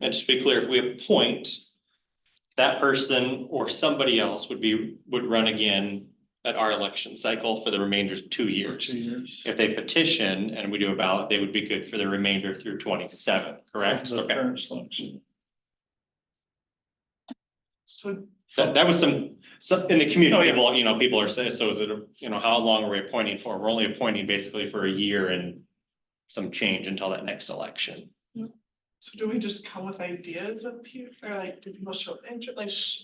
And just to be clear, if we appoint, that person or somebody else would be, would run again at our election cycle for the remainder of two years. years. If they petition and we do a ballot, they would be good for the remainder through twenty-seven, correct? The Okay, current selection. So, that, that was some, some, in the community, people, you know, people are saying, so is it, a- you know, how long are we appointing for? We're only appointing basically for a year and some change until that next election. so do we just come with ideas of people, or like, do people show interest, like, sh-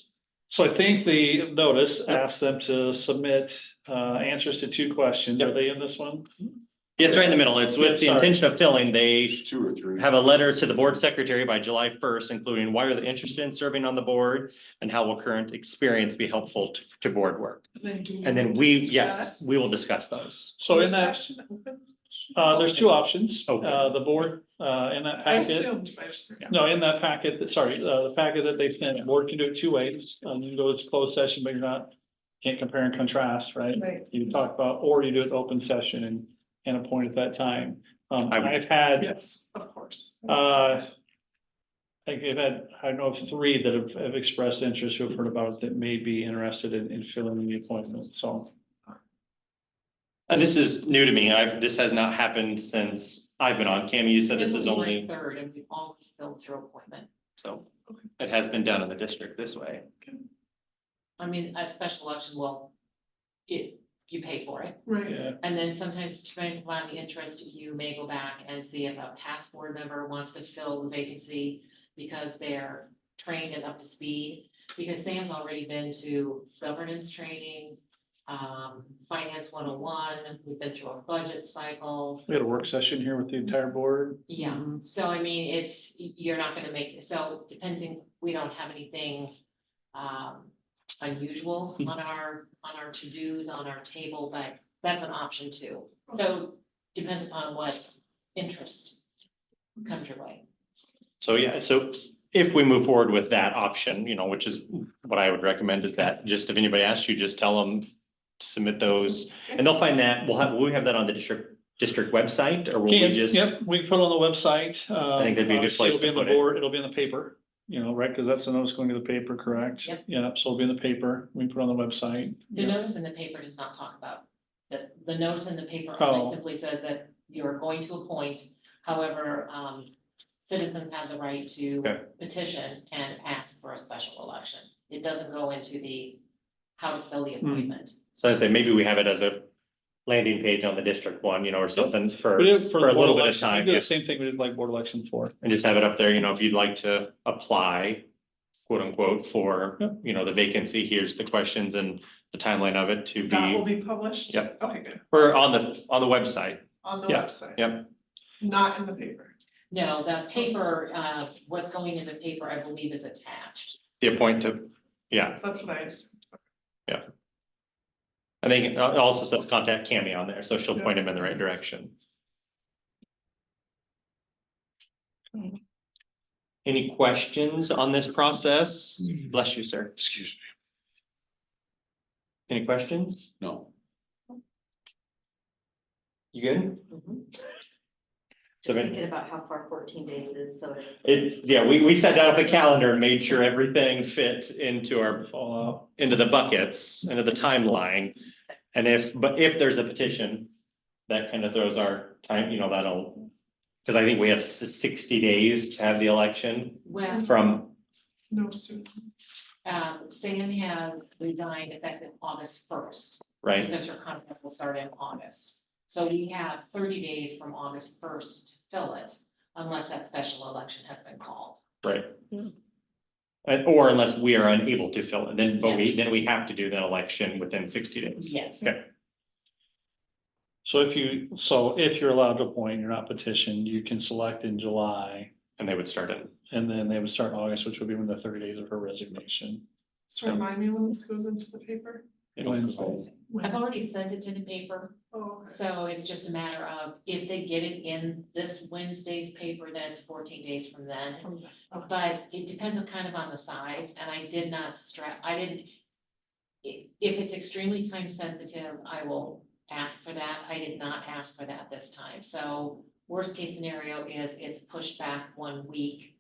So I think the notice asked them to submit uh answers to two questions. Are they in this one? Yeah, It's right in the middle. It's with the Sorry. intention of filling, they There's two or three. have a letter to the board secretary by July first, including why are they interested in serving on the board? And how will current experience be helpful to, to board work? and then do. And then we, yes, discuss? we will discuss those. So in Is that, session open? uh, there's two options. Okay. Uh, the board, uh, in that I packet. assumed, I assumed. No, in that packet, sorry, uh, the packet that they sent, the board can do it two ways. Um, you can go to closed session, but you're not, can't compare and contrast, right? Right. You can talk about, or you do it open session and, and appoint at that time. Um, I would- I've had, I Yes, of course. Uh, think I've had, I know of three that have, have expressed interest who have heard about it that may be interested in, in filling the appointment, so. And this is new to me. I've, this has not happened since I've been on. Cami, you said this is only, Third, and we always fill through appointment. so it has been done in the district this way. I mean, a special election will, it, you pay for it. Right, Yeah, And then sometimes depending upon the interest, you may go back and see if a past board member wants to fill the vacancy because they're trained and up to speed. Because Sam's already been to governance training, um, finance one oh one, we've been through a budget cycle. we had a work session here with the entire board. Yeah, so I mean, it's, you're not gonna make, so depending, we don't have anything um unusual on our, on our to-dos, on our table, but that's an option too. So depends upon what interest comes your way. So yeah, so if we move forward with that option, you know, which is what I would recommend is that just if anybody asks you, just tell them submit those and they'll find that, we'll have, we have that on the district, district website or will we Can, just? yep, we can put it on the website. I think that'd be a good place to put it. It'll be in the paper, you know, right, because that's the notice going to the paper, correct? Yep. Yeah, so it'll be in the paper, we can put it on the website. The Yeah. notice in the paper does not talk about, the, the notice in the paper Oh. only simply says that you're going to appoint. However, um, citizens have the right to Okay. petition and ask for a special election. It doesn't go into the how to fill the Hmm. appointment. So I say maybe we have it as a landing page on the district one, you know, or something We for, did it for a the board little bit of election. We time, did yeah. the Same thing we did like board election for. and just have it up there, you know, if you'd like to apply. Quote unquote for, Yep. you know, the vacancy, here's the questions and the timeline of it to that will be, be published? Yep. Okay, good, or on the, on the website. on the Yeah, website. yep. Not in the paper. No, the paper, uh, what's going in the paper, I believe, is attached. The appoint to, yeah, That's what I assumed. I think it also says contact Cammy on there, so she'll Yeah. point him in the right direction. Any questions on this process? Bless you, sir. Excuse Any questions? me, no. You good? So Mm-hmm. Just then- thinking about how far fourteen days is, so. it- It, yeah, we, we set that up a calendar and made sure everything fit into our, All into the buckets, into the timeline. And if, but if there's a petition, that kind of throws our time, you know, that'll, because I think we have s- sixty days to have the election Well, from, No soon. um, Sam has resigned effective August first. right? Because her contract will start in August. So we have thirty days from August first to fill it, unless that special election has been called. Right. And- or unless we are unable to fill it, then, but we, then we have to do that election within sixty days. Yes. Okay. So if you, so if you're allowed to appoint, you're not petitioned, you can select in July. And they would start it. And then they would start in August, which would be when the thirty days of her resignation. So remind me when this goes into the paper? Wednesday. I've already sent it to the paper, Oh, okay. so it's just a matter of if they get it in this Wednesday's paper, then it's fourteen days from then. From that. Okay. But it depends on kind of on the size, and I did not stress, I didn't. i- If it's extremely time sensitive, I will ask for that. I did not ask for that this time. So worst case scenario is it's pushed back one week